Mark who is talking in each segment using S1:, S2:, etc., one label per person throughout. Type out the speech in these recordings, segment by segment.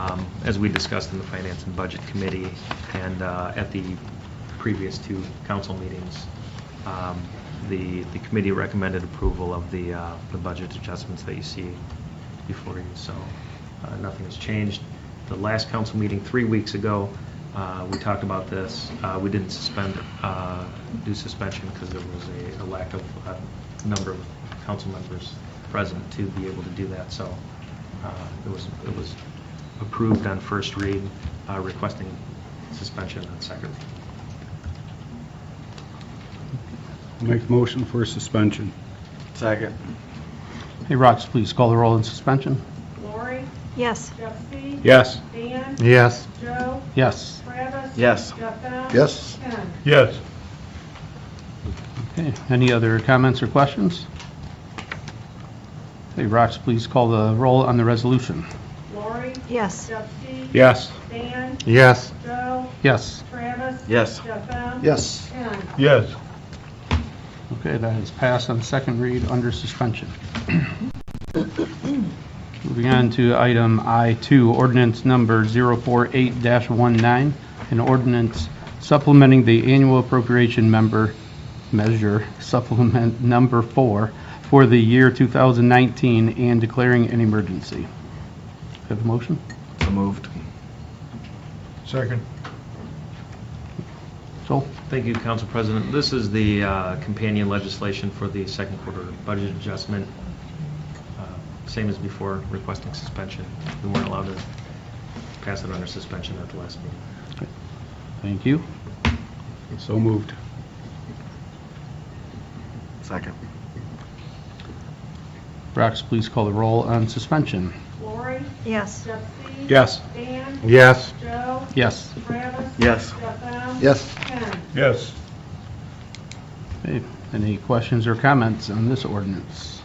S1: um, as we discussed in the Finance and Budget Committee and uh, at the previous two council meetings, um, the, the committee recommended approval of the, uh, the budget adjustments that you see before you, so uh, nothing has changed. The last council meeting, three weeks ago, uh, we talked about this. Uh, We didn't suspend, uh, do suspension because there was a- a lack of uh, number of council members present to be able to do that, so uh, it was, it was approved on first read, uh, requesting suspension on second.
S2: Make the motion for suspension.
S3: Second.
S4: Hey, Rox, please call the roll in suspension.
S5: Lori,
S6: Yes.
S5: Jeffy.
S2: Yes.
S5: Dan.
S4: Yes.
S5: Joe.
S4: Yes.
S5: Travis.
S3: Yes.
S5: Jeff M.
S3: Yes.
S5: Ken.
S2: Yes.
S4: Okay, any other comments or questions? Hey, Rox, please call the roll on the resolution.
S5: Lori,
S6: Yes.
S5: Jeffy.
S2: Yes.
S5: Dan.
S4: Yes.
S5: Joe.
S4: Yes.
S5: Travis.
S3: Yes.
S5: Jeff M.
S3: Yes.
S5: Ken.
S2: Yes.
S4: Okay, that is passed on second read under suspension. Moving on to item I2, ordinance number 048-19, an ordinance supplementing the annual appropriation member measure supplement number four for the year 2019 and declaring an emergency. Have a motion?
S3: So moved.
S2: Second.
S4: Joel?
S1: Thank you, Council President. This is the uh, companion legislation for the second quarter budget adjustment. Uh, Same as before, requesting suspension. We weren't allowed to pass it under suspension at the last meeting.
S4: Thank you.
S2: So moved.
S3: Second.
S4: Rox, please call the roll on suspension.
S5: Lori,
S6: Yes.
S5: Jeffy.
S2: Yes.
S5: Dan.
S2: Yes.
S5: Joe.
S4: Yes.
S5: Travis.
S3: Yes.
S5: Jeff M.
S3: Yes.
S5: Ken.
S2: Yes.
S4: Okay, Any questions or comments on this ordinance?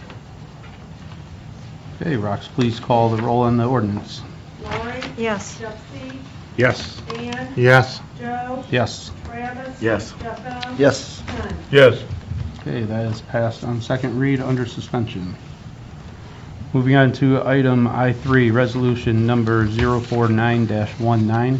S4: Okay, Rox, please call the roll on the ordinance.
S5: Lori,
S6: Yes.
S5: Jeffy.
S2: Yes.
S5: Dan.
S2: Yes.
S5: Joe.
S4: Yes.
S5: Travis.
S3: Yes.
S5: Jeff M.
S3: Yes.
S5: Ken.
S2: Yes.
S4: Okay, that is passed on second read under suspension. Moving on to item I3, resolution number 049-19,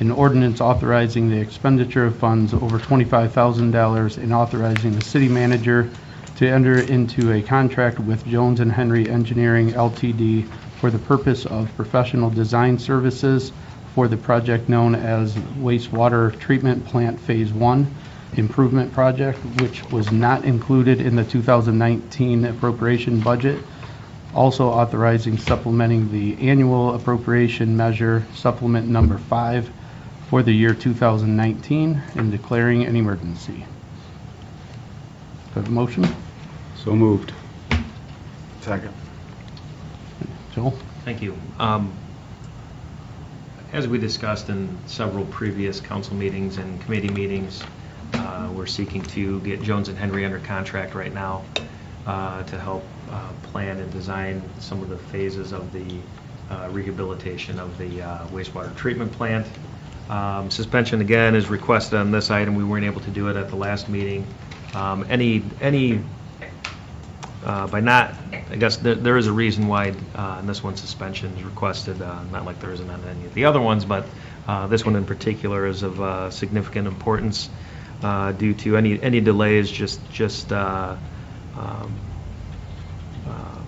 S4: an ordinance authorizing the expenditure of funds over $25,000 and authorizing the city manager to enter into a contract with Jones and Henry Engineering LTD for the purpose of professional design services for the project known as wastewater treatment plant Phase 1 improvement project, which was not included in the 2019 appropriation budget, also authorizing supplementing the annual appropriation measure supplement number five for the year 2019 and declaring an emergency. Do I have a motion?
S2: So moved.
S3: Second.
S4: Joel?
S1: Thank you. Um, As we discussed in several previous council meetings and committee meetings, uh, we're seeking to get Jones and Henry under contract right now uh, to help uh, plan and design some of the phases of the uh, rehabilitation of the uh, wastewater treatment plant. Um, Suspension, again, is requested on this item. We weren't able to do it at the last meeting. Um, Any, any uh, by not, I guess there there is a reason why uh, in this one suspension is requested, uh, not like there isn't on any of the other ones, but uh, this one in particular is of uh, significant importance uh, due to any, any delays, just, just uh, um, uh,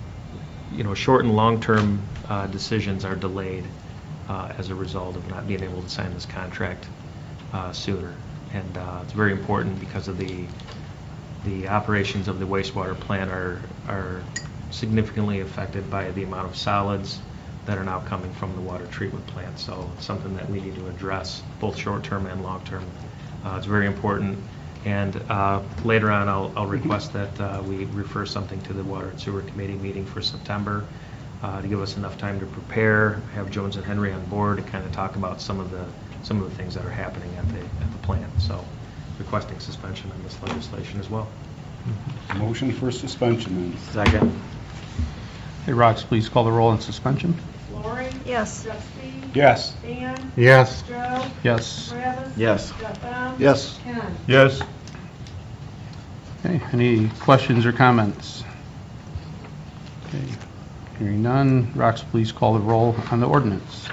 S1: you know, short and long-term uh, decisions are delayed uh, as a result of not being able to sign this contract uh, sooner. And uh, it's very important because of the, the operations of the wastewater plant are, are significantly affected by the amount of solids that are now coming from the water treatment plant. So it's something that we need to address, both short-term and long-term. Uh, It's very important. And uh, later on, I'll, I'll request that uh, we refer something to the Water and Sewer Committee meeting for September uh, to give us enough time to prepare, have Jones and Henry on board to kind of talk about some of the, some of the things that are happening at the, at the plant. So requesting suspension on this legislation as well.
S2: Motion for suspension
S3: Second.
S4: Hey, Rox, please call the roll on suspension.
S5: Lori,
S6: Yes.
S5: Jeffy.
S2: Yes.
S5: Dan.
S2: Yes.
S5: Joe.
S4: Yes.
S5: Travis.
S3: Yes.
S5: Jeff M.
S3: Yes.
S5: Ken.
S2: Yes.
S4: Okay, any questions or comments? Okay, Hearing none, Rox, please call the roll on the ordinance.